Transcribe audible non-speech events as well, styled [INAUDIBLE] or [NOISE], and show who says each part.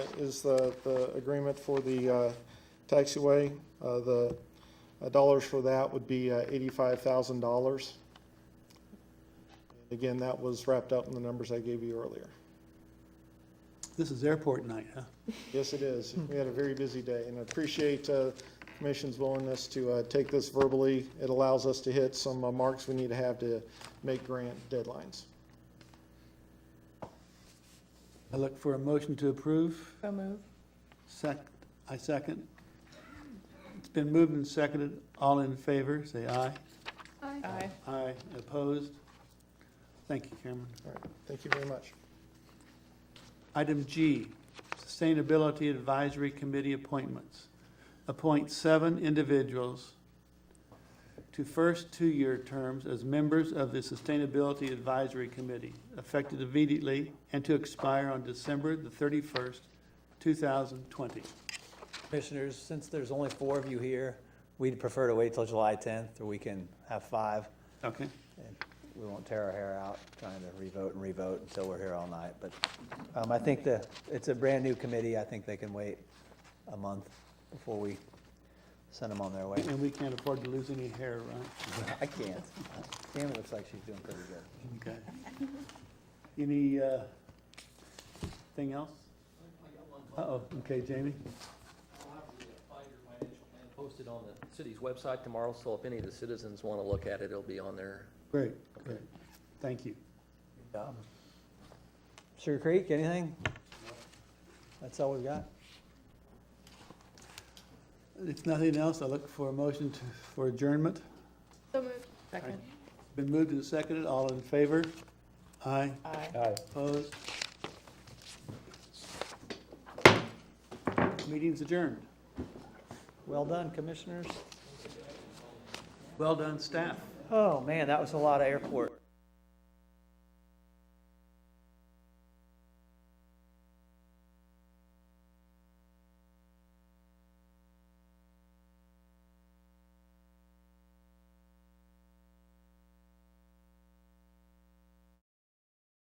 Speaker 1: is the, the agreement for the uh, taxiway. Uh, The uh, dollars for that would be uh, $85,000. Again, that was wrapped up in the numbers I gave you earlier.
Speaker 2: This is airport night, huh?
Speaker 1: Yes, it is. We had a very busy day, and I appreciate uh, Commission's willingness to uh, take this verbally. It allows us to hit some uh, marks we need to have to make grant deadlines.
Speaker 2: I look for a motion to approve.
Speaker 3: So move.
Speaker 2: Sec, I second. It's been moved and seconded. All in favor, say aye.
Speaker 3: Aye.
Speaker 2: Aye. Opposed? Thank you, Cameron.
Speaker 1: All right, thank you very much.
Speaker 2: Item G, Sustainability Advisory Committee appointments. Appoint seven individuals to first two-year terms as members of the Sustainability Advisory Committee, effective immediately and to expire on December the thirty-first, two thousand twenty.
Speaker 4: Commissioners, since there's only four of you here, we'd prefer to wait till July 10th, or we can have five.
Speaker 2: Okay,
Speaker 4: and We won't tear our hair out trying to revote and revote until we're here all night. But um, I think the, it's a brand-new committee. I think they can wait a month before we send them on
Speaker 2: [LAUGHS]
Speaker 4: their way.
Speaker 2: and we can't afford to lose any hair, right?
Speaker 4: I can't. Tammy looks like she's doing pretty good.
Speaker 2: Okay. Any, uh, thing else? Uh-oh, okay, Jamie?
Speaker 5: I'll have the five-year financial plan posted on the city's website tomorrow, so if any of the citizens want to look at it, it'll be on there.
Speaker 2: Great, great. Thank you.
Speaker 4: Um, Sugar Creek, anything? That's all we've got.
Speaker 2: If nothing else, I look for a motion to- for adjournment.
Speaker 6: So moved.
Speaker 3: Second.
Speaker 2: Been moved and seconded, all in favor? Aye,
Speaker 3: Aye.
Speaker 2: opposed? Meeting's adjourned.
Speaker 4: Well done, commissioners.
Speaker 2: Well done, staff.
Speaker 4: Oh, man, that was a lot of airport.